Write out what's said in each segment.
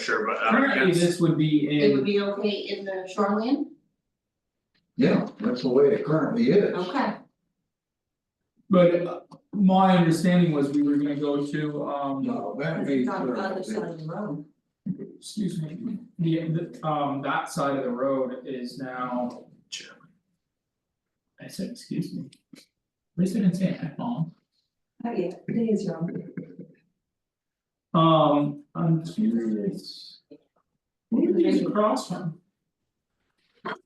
sure, but uh, I'm Currently, against, this would be It would in, be okay in the shoreline, Yeah, that's the way it currently is. okay, but uh, my understanding was we were gonna go to um, No, Uh, that cause means. it's on the other they're- side of the road. excuse me, the the um that side of the road is now. I said, excuse me. At least I didn't say it, mom. Oh, yeah, it is wrong. Um, I'm curious. Where are these across from?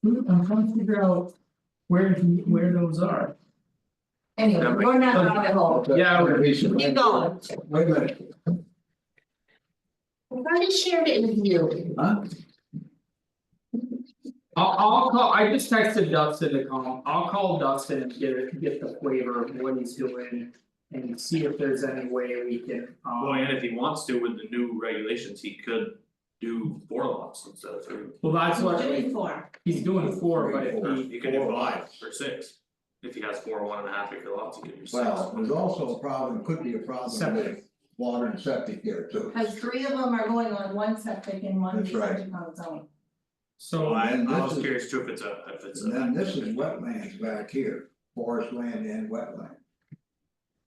Who- I'm trying to figure out where he- where those are. Anyway, That we're not makes- on the Oh, hole, Yeah, we're- keep going, Wait a minute, I've already shared it with you. huh? I'll I'll call, I just texted Dustin to call, I'll call Dustin and get it, get the flavor of what he's doing. And see if there's any way we can, well, um, and if he wants to with the new regulations, he could do four lots instead of three. well, that's what, Doing four, he's doing four, but if Or he, you can do Four five lots. or six, if he has four one and a half acre lots, he could do six. Well, there's also a problem, could be a problem with Septic. water and septic here too. cause three of them are going on one septic and one That's right. detention pond zone. Well, so, I and I this was is- curious too if it's a, if it's a. And then this is wetlands back here, forest land and wetland.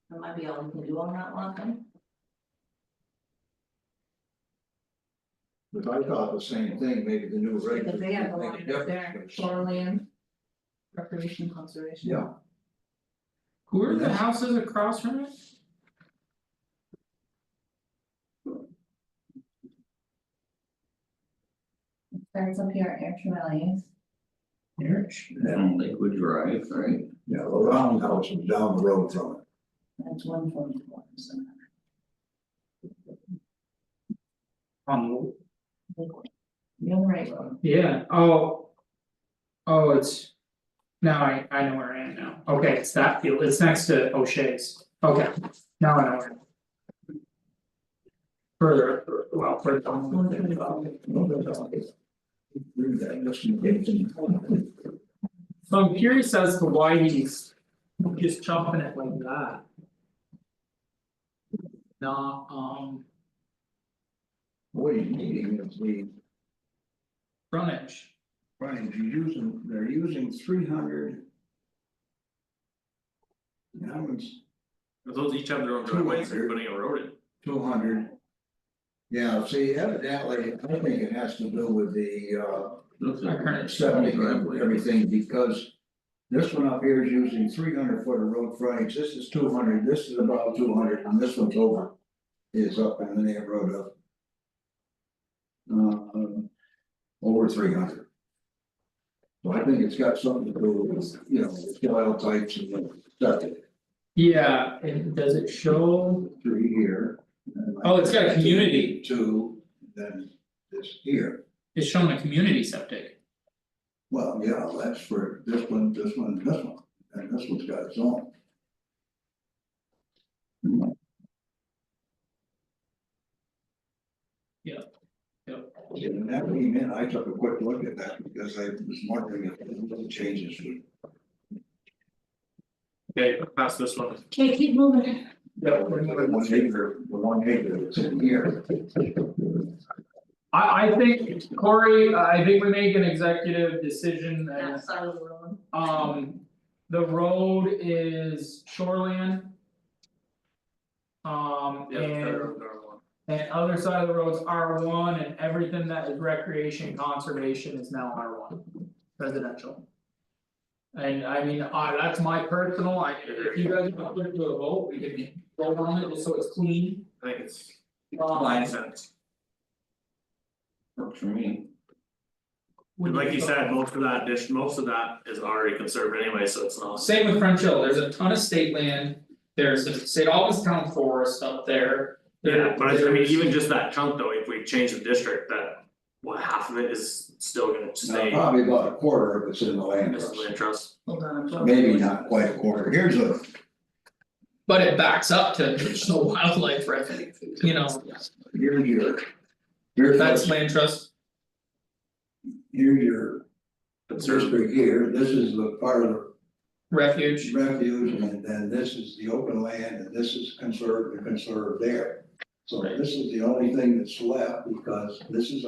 That might be all we can do on that one then. But I thought the same thing, maybe the new regulations. Because they have a make line up difference, there, but- shoreline. Recreation conservation. Yeah, who are the houses across from it? Starts up here at Air Tremelius. Marriage. and Lakewood Drive, right? yeah, the roundhouse is down the road from it. that's one forty four, so. Um, You're right, yeah, oh. Oh, it's. Now I I know where I am now, okay, it's that field, it's next to O'Shea's, okay, now I know where. Further, well, further. one forty four. Read that, listen, it's- So I'm curious as to why he's just chopping it like that. Nah, um, What he's needing is the frontage, Right, they're using, they're using three hundred. Now it's Those each have their own driveways, they're putting a road in. two hundred. Yeah, see evidently, I think it has to do with the Looks like. Our current uh Seventy septic driveway. and everything, because. This one up here is using three hundred foot of road frontage, this is two hundred, this is about two hundred, and this one's over. Is up in the neighborhood of. uh, Um, over three hundred. So I think it's got something to do with, you know, the soil types and the septic yeah, and does it show? three here. and then Oh, it's got a community. Two, then this here, It's showing a community septic, well, yeah, that's for this one, this one, this one, and this one's got its own. Yeah, yeah. And that came in, I took a quick look at that because I was wondering if the changes would. Okay, pass this one. Okay, keep moving. Yeah. The one acre, the one acre that's in here. I I think Corey, I think we make an executive decision and Outside of the room. um the road is shoreline. Um Yeah, and. they're- they're one. And other side of the roads R one and everything that is recreation conservation is now R one, residential. And I mean, I that's my personal, I if you guys want to put it to a vote, we can vote on it just so it's clean. I think it's. Um, Makes sense. Works for me. And like you said, most of that dish, most of that is already conserved anyway, so it's not. Same with French Hill, there's a ton of state land, there's the St. Albans Town Forest up there. Yeah, but I I mean, there's- even just that chunk though, if we change the district, that, what, half of it is still gonna Now, stay Probably about a quarter of it's in the land as trust, land trust. Hold on, I'm. maybe not quite a quarter, here's a, But it backs up to traditional wildlife refuge, you know, here's your. Here's that's what's- land trust, here's your Conserve, district here, this is the part of the refuge. refuge, and then this is the open land, and this is conserved and conserved there. So this is the only thing that's left because this is